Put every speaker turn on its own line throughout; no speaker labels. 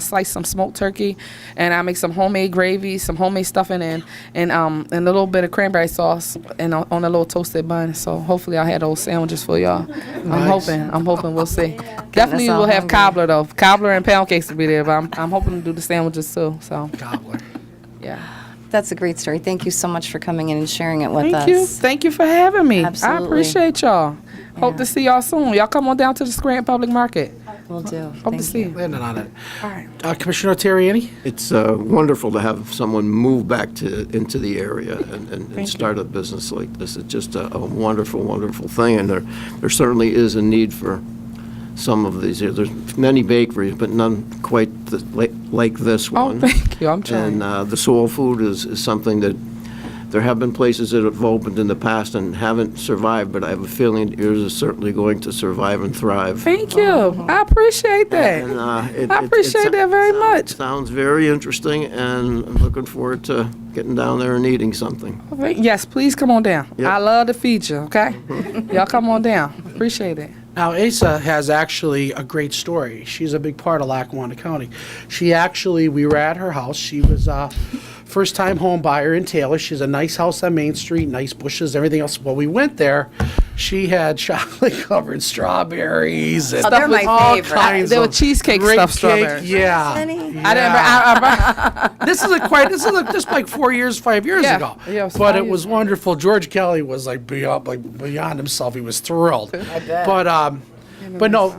slice some smoked turkey, and I make some homemade gravy, some homemade stuffing, and and um and a little bit of cranberry sauce, and on on a little toasted bun. So hopefully I'll have those sandwiches for y'all. I'm hoping. I'm hoping we'll see. Definitely
all
we'll have
hungry.
cobbler though. Cobbler and pound cakes will be there, but I'm I'm hoping to do the sandwiches too. So
Gobbler.
yeah.
That's a great story. Thank you so much for coming in and sharing it with
Thank
us.
you. Thank you for having me. I
Absolutely.
appreciate y'all. Hope to see y'all soon. Y'all come on down to the Scranton Public Market.
Will do.
Hope
Thank
to see
you.
you.
Landed on it.
All right.
Uh, Commissioner Terriani?
It's uh, wonderful to have someone move back to, into the area and, and- and start a business like this. It's just a a wonderful, wonderful thing, and there, there certainly is a need for some of these. There's many bakeries, but none quite th- like like this
Oh,
one.
thank you. I'm
And
trying.
uh, the soul food is, is something that, there have been places that have opened in the past and haven't survived, but I have a feeling yours is certainly going to survive and thrive.
Thank you. I appreciate that.
And, uh, it- it-
I
it
appreciate
sou-
that very much.
Sounds very interesting, and I'm looking forward to getting down there and eating something.
Thank- Yes, please come on down.
Yep.
I love to feed you, okay? Y'all come on down. Appreciate it.
Now, Asa has actually a great story. She's a big part of Lackawanna County. She actually, we were at her house. She was a first-time home buyer in Taylor. She's a nice house on Main Street, nice bushes, everything else. Well, we went there. She had chocolate-covered strawberries and
Oh, they're my
all
favorite.
kinds
They were
of
cheesecake
great
stuffed
cake.
strawberries.
Yeah.
I didn't. I, I,
this is a quite this is a, just like four years five years
Yeah.
ago
Yeah, it was
but
five
it was
years.
wonderful george kelly was like beyond like beyond himself he was thrilled but um but no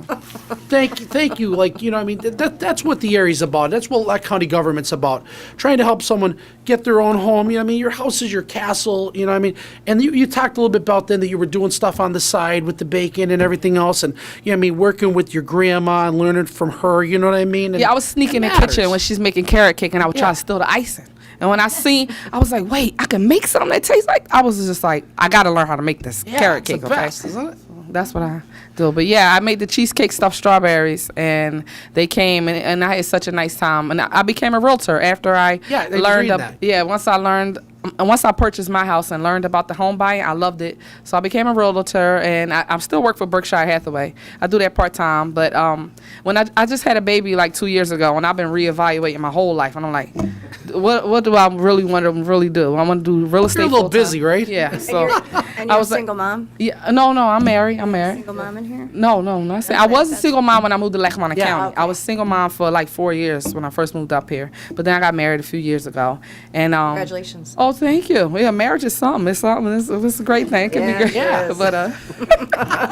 thank you thank you like you know i mean th- that, that's what the area's about that's what that county government's about trying to help someone get their own home you know what i mean your house is your castle you know what i mean and you, you talked a little bit about then that you were doing stuff on the side with the bacon and everything else and you know what i mean working with your grandma and learning from her you know what i mean And
yeah, I was sneaking in
it
the kitchen
matters.
when she's making carrot cake, and I would try to steal the icing. And when I seen, I was like, "Wait, I can make something that tastes like." I was just like, "I got to learn how to make this
Yeah,
carrot
it's the
cake."
best,
okay?
isn't it?
That's what I do. But yeah, I made the cheesecake stuffed strawberries, and they came, and, and I had such a nice time. And I, I became a realtor after I
Yeah, I was
learned.
reading
ab-
that.
Yeah, once I learned, and once I purchased my house and learned about the home buying, I loved it. So I became a realtor, and I, I still work for Berkshire Hathaway. I do that part time, but um, when I, I just had a baby like two years ago, and I've been reevaluating my whole life, and I'm like, what what do I really want to really do? I want to do real estate.
a little
full-time.
busy, right?
Yeah. So
And
I
you're a
was like-
single mom?
yeah, no, no, I'm married. I'm married.
Single mom in here?
No, no, not saying. I
Okay,
was a
that's-
single mom when I moved to Lackawanna
Yeah,
County. I was single mom for like four years when I first moved up here, but then I got married a few years ago. And um,
Congratulations.
Oh, thank you. Yeah, marriage is something. It's something. It's, it's a great thing. It can
Yeah,
be great.
it is.
But uh,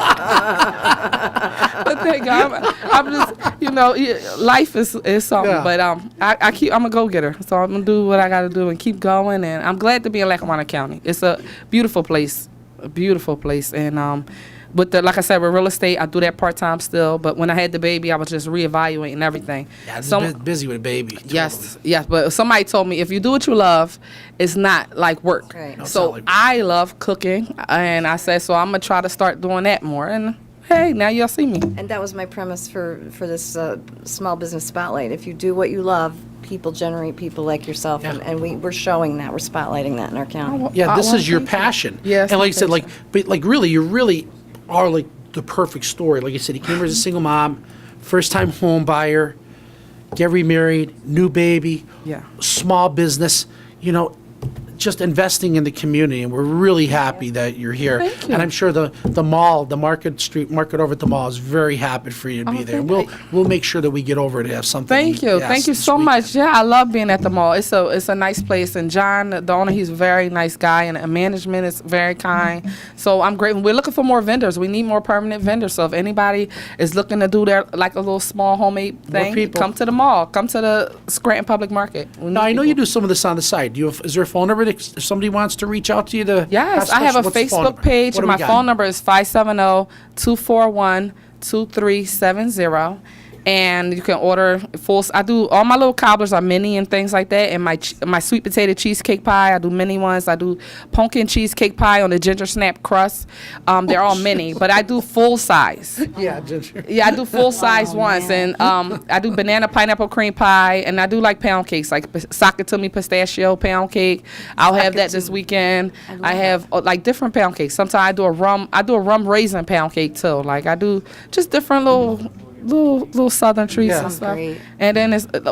but thank God, I'm, I'm just you know, yeah, life is is something.
Yeah.
But um, I, I keep I'm a go getter, so I'm gonna do what I gotta do and keep going. And I'm glad to be in Lackawanna County. It's a beautiful place, a beautiful place. And um, with the like I said, with real estate, I do that part time still. But when I had the baby, I was just reevaluating everything.
Yeah,
Some-
bu- busy with a baby.
Yes, yes. But somebody told me if you do what you love, it's not like work.
Right. No,
it's
so
not like work.
I love cooking, and I said so. I'm gonna try to start doing that more. And hey, now y'all see me.
And that was my premise for, for this uh, small business spotlight. If you do what you love, people generate people like yourself, and, and we, we're showing that, we're spotlighting that in our county.
Yeah,
I
this
wanna
is your
thank
passion.
Yes,
And like
my
you said, like,
passion.
but like really, you really are like the perfect story. Like you said, he came here as a single mom, first time home buyer, get remarried, new baby,
Yeah.
small business, you know, just investing in the community. And we're really happy that you're here.
Thank you.
And I'm sure the, the mall, the Market Street, Market over at the mall is very happy for you to be
Oh,
there.
thank
We'll,
you.
we'll make sure that we get over to have something. to
Thank
eat,
you,
yes,
thank you
this
so
weekend.
much. Yeah, I love being at the mall. It's a it's a nice place, and John, the owner, he's a very nice guy, and uh, management is very kind. So I'm grateful. We're looking for more vendors. We need more permanent vendors. So if anybody is looking to do their like a little small homemade thing,
people.
come to the mall. Come to the Scranton Public Market. We
Now,
need
I know
people.
you do some of this on the side. Do you have, is there a phone number that if somebody wants to reach out to you to?
Yes, I have a
What's the phone
Facebook
number?
page.
What do
My
we got?
phone number is oh, 570-241-2370. And you can order full. I do all my little cobblers are mini and things like that. And my ch- my sweet potato cheesecake pie, I do mini ones. I do pumpkin cheesecake pie on the ginger snap crust. Um, they're all mini, but I do full size.
Yeah, Ginger.
Yeah, I do full size ones, and um, I do banana pineapple cream pie, and I do like pound cakes, like p- Sakatumi pistachio pound cake. I'll have that this weekend. I, have uh, like different pound cakes. Sometimes I do a rum, I do a rum raisin pound cake too. Like I do just different little little little southern trees
Yeah.
and
Sounds
stuff.
great.
And then it's